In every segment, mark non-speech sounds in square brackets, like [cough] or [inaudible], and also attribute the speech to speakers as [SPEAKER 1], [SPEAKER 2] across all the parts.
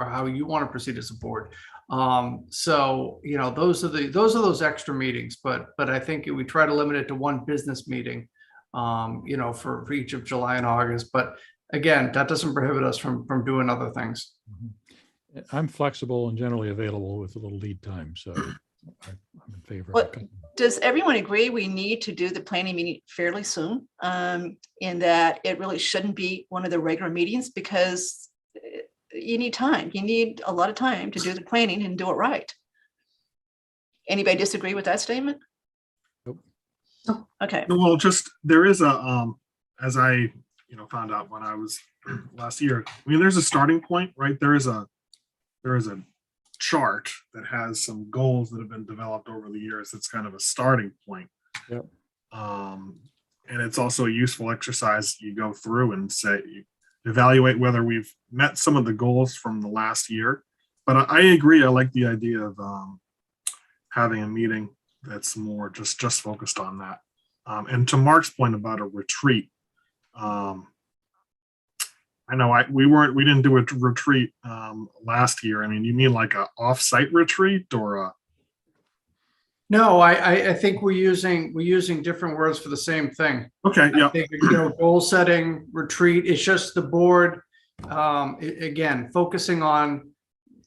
[SPEAKER 1] or how you want to proceed as a board. Um, so, you know, those are the, those are those extra meetings, but, but I think we try to limit it to one business meeting. Um, you know, for, for each of July and August, but again, that doesn't prohibit us from, from doing other things.
[SPEAKER 2] Mhm. I'm flexible and generally available with a little lead time, so I- I'm in favor. of
[SPEAKER 3] What-
[SPEAKER 2] cutting.
[SPEAKER 3] Does everyone agree we need to do the planning meeting fairly soon? Um, in that it really shouldn't be one of the regular meetings because eh, you need time, you need a lot of time to do the planning and do it right. Anybody disagree with that statement?
[SPEAKER 2] Nope.
[SPEAKER 3] No, Okay,
[SPEAKER 4] Well, just, there is a, um, as I, you know, found out when I was [clears throat] last year, I mean, there's a starting point, right? There is a, there is a chart that has some goals that have been developed over the years. It's kind of a starting point.
[SPEAKER 2] Yep.
[SPEAKER 4] Um, and it's also a useful exercise. You go through and say, you evaluate whether we've met some of the goals from the last year. But I, I agree. I like the idea of, um, having a meeting that's more just, just focused on that. Um, and to Mark's point about a retreat, um, I know I, we weren't, we didn't do a retreat, um, last year. I mean, you mean like a off-site retreat or a,
[SPEAKER 1] No, I, I, I think we're using, we're using different words for the same thing.
[SPEAKER 4] okay,
[SPEAKER 1] I
[SPEAKER 4] yeah,
[SPEAKER 1] think, you know, goal setting, retreat, it's just the board, um, a- again, focusing on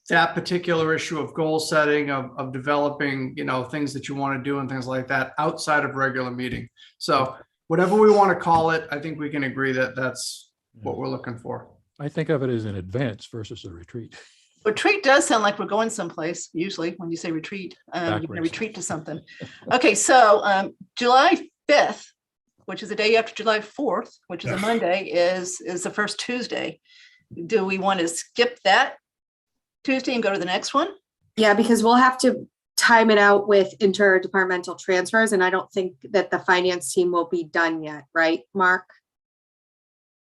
[SPEAKER 1] that particular issue of goal setting, of, of developing, you know, things that you want to do and things like that outside of regular meeting. So whatever we want to call it, I think we can agree that that's what we're looking for.
[SPEAKER 2] I think of it as an advance versus a retreat.
[SPEAKER 3] retreat does sound like we're going someplace usually when you say retreat, um, you're gonna
[SPEAKER 2] Backwards.
[SPEAKER 3] retreat to something. Okay, so, um, July fifth, which is the day after July fourth, which is a
[SPEAKER 4] Yeah.
[SPEAKER 3] Monday, is, is the first Tuesday. Do we want to skip that Tuesday and go to the next one?
[SPEAKER 5] Yeah, because we'll have to time it out with interdepartmental transfers, and I don't think that the finance team will be done yet, right, Mark?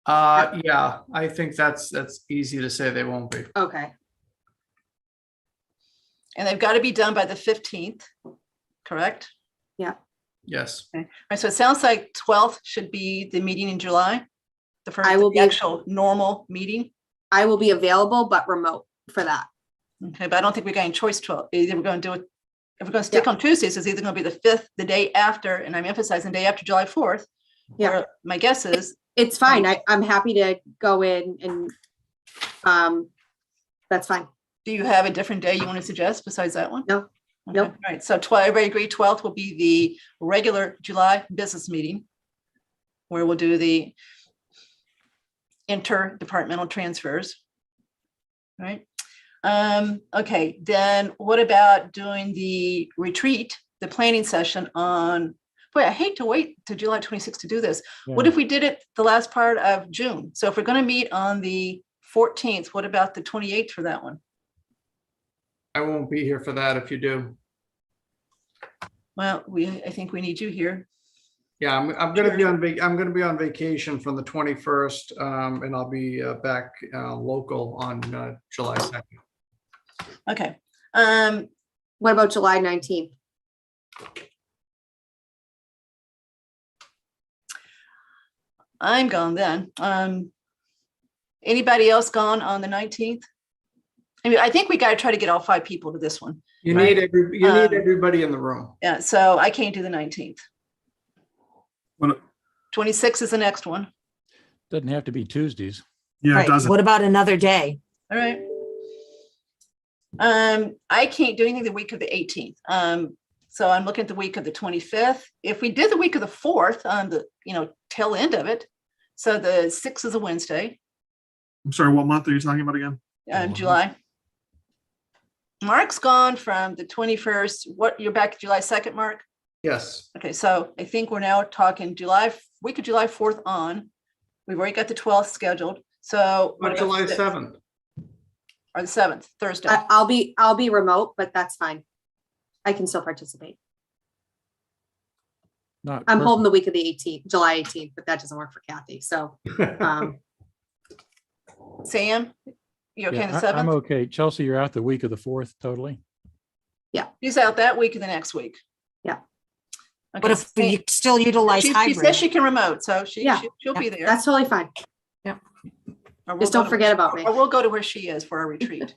[SPEAKER 1] Uh, yeah, I think that's, that's easy to say they won't be.
[SPEAKER 5] Okay,
[SPEAKER 3] And they've got to be done by the fifteenth, correct?
[SPEAKER 1] Yes.
[SPEAKER 3] All right, so it sounds like twelfth should be the meeting in July. The first,
[SPEAKER 5] will
[SPEAKER 3] the
[SPEAKER 5] be-
[SPEAKER 3] actual normal meeting.
[SPEAKER 5] I will be available but remote for that.
[SPEAKER 3] Okay, but I don't think we're getting choice twelve. Either we're gonna do it, if we're gonna stick on Tuesdays, it's either gonna be the fifth, the day after, and I'm emphasizing the day after July fourth.
[SPEAKER 5] Yeah.
[SPEAKER 3] My guess is,
[SPEAKER 5] It's fine. I, I'm happy to go in and, um, that's fine.
[SPEAKER 3] do you have a different day you want to suggest besides that one?
[SPEAKER 5] No.
[SPEAKER 3] Okay,
[SPEAKER 5] Nope.
[SPEAKER 3] All right, so twelve, everybody agree twelfth will be the regular July business meeting. Where we'll do the interdepartmental transfers. Right? Um, okay, then what about doing the retreat, the planning session on, boy, I hate to wait to July twenty-sixth to do this. What
[SPEAKER 2] Yeah.
[SPEAKER 3] if we did it the last part of June? So if we're gonna meet on the fourteenth, what about the twenty-eighth for that one?
[SPEAKER 1] I won't be here for that if you do.
[SPEAKER 3] Well, we, I think we need you here.
[SPEAKER 1] Yeah, I'm, I'm gonna be on, vac- I'm gonna be on vacation from the twenty-first, um, and I'll be uh, back, uh, local on, uh, July second.
[SPEAKER 3] Okay. Um,
[SPEAKER 5] What about July nineteenth?
[SPEAKER 3] I'm gone then. Um, anybody else gone on the nineteenth? I mean, I think we gotta try to get all five people to this one.
[SPEAKER 1] You
[SPEAKER 3] Right.
[SPEAKER 1] need every, you need
[SPEAKER 3] Um,
[SPEAKER 1] everybody in the room.
[SPEAKER 3] Yeah, so I can't do the nineteenth.
[SPEAKER 4] What-
[SPEAKER 3] Twenty-six is the next one.
[SPEAKER 2] Doesn't have to be Tuesdays.
[SPEAKER 4] yeah, it
[SPEAKER 6] Right.
[SPEAKER 4] doesn't.
[SPEAKER 6] What about another day?
[SPEAKER 3] All right. Um, I can't do anything the week of the eighteenth. Um, so I'm looking at the week of the twenty-fifth. If we did the week of the fourth on the, you know, tail end of it. So the sixth is a Wednesday.
[SPEAKER 4] I'm sorry, what month are you talking about again?
[SPEAKER 3] um,
[SPEAKER 1] Mm-hmm.
[SPEAKER 2] Mhm.
[SPEAKER 3] July. Mark's gone from the twenty-first, what, you're back July second, Mark?
[SPEAKER 1] Yes.
[SPEAKER 3] Okay, so I think we're now talking July, f- week of July fourth on. We've already got the twelfth scheduled, so. what
[SPEAKER 1] But
[SPEAKER 3] about
[SPEAKER 1] July
[SPEAKER 3] the-
[SPEAKER 1] seventh.
[SPEAKER 3] Or the seventh, Thursday.
[SPEAKER 5] I, I'll be, I'll be remote, but that's fine. I can still participate.
[SPEAKER 2] Not
[SPEAKER 5] I'm
[SPEAKER 2] perfect.
[SPEAKER 5] holding the week of the eighteenth, July eighteenth, but that doesn't work for Kathy, so, um,
[SPEAKER 3] Sam, you okay
[SPEAKER 2] Yeah,
[SPEAKER 3] on
[SPEAKER 2] I-
[SPEAKER 3] the
[SPEAKER 2] I'm
[SPEAKER 3] seventh?
[SPEAKER 2] okay. Chelsea, you're out the week of the fourth, totally.
[SPEAKER 3] He's out that week and the next week.
[SPEAKER 5] Yeah.
[SPEAKER 6] What
[SPEAKER 3] Okay,
[SPEAKER 6] if we
[SPEAKER 3] Sam-
[SPEAKER 6] still utilize
[SPEAKER 3] she, she says
[SPEAKER 6] hybrid?
[SPEAKER 3] she can remote, so she,
[SPEAKER 5] Yeah.
[SPEAKER 3] she- she'll be there.
[SPEAKER 5] that's totally fine.
[SPEAKER 3] Or we'll
[SPEAKER 5] Just
[SPEAKER 3] go
[SPEAKER 5] don't
[SPEAKER 3] to-
[SPEAKER 5] forget about me.
[SPEAKER 3] Or we'll go to where she is for our retreat.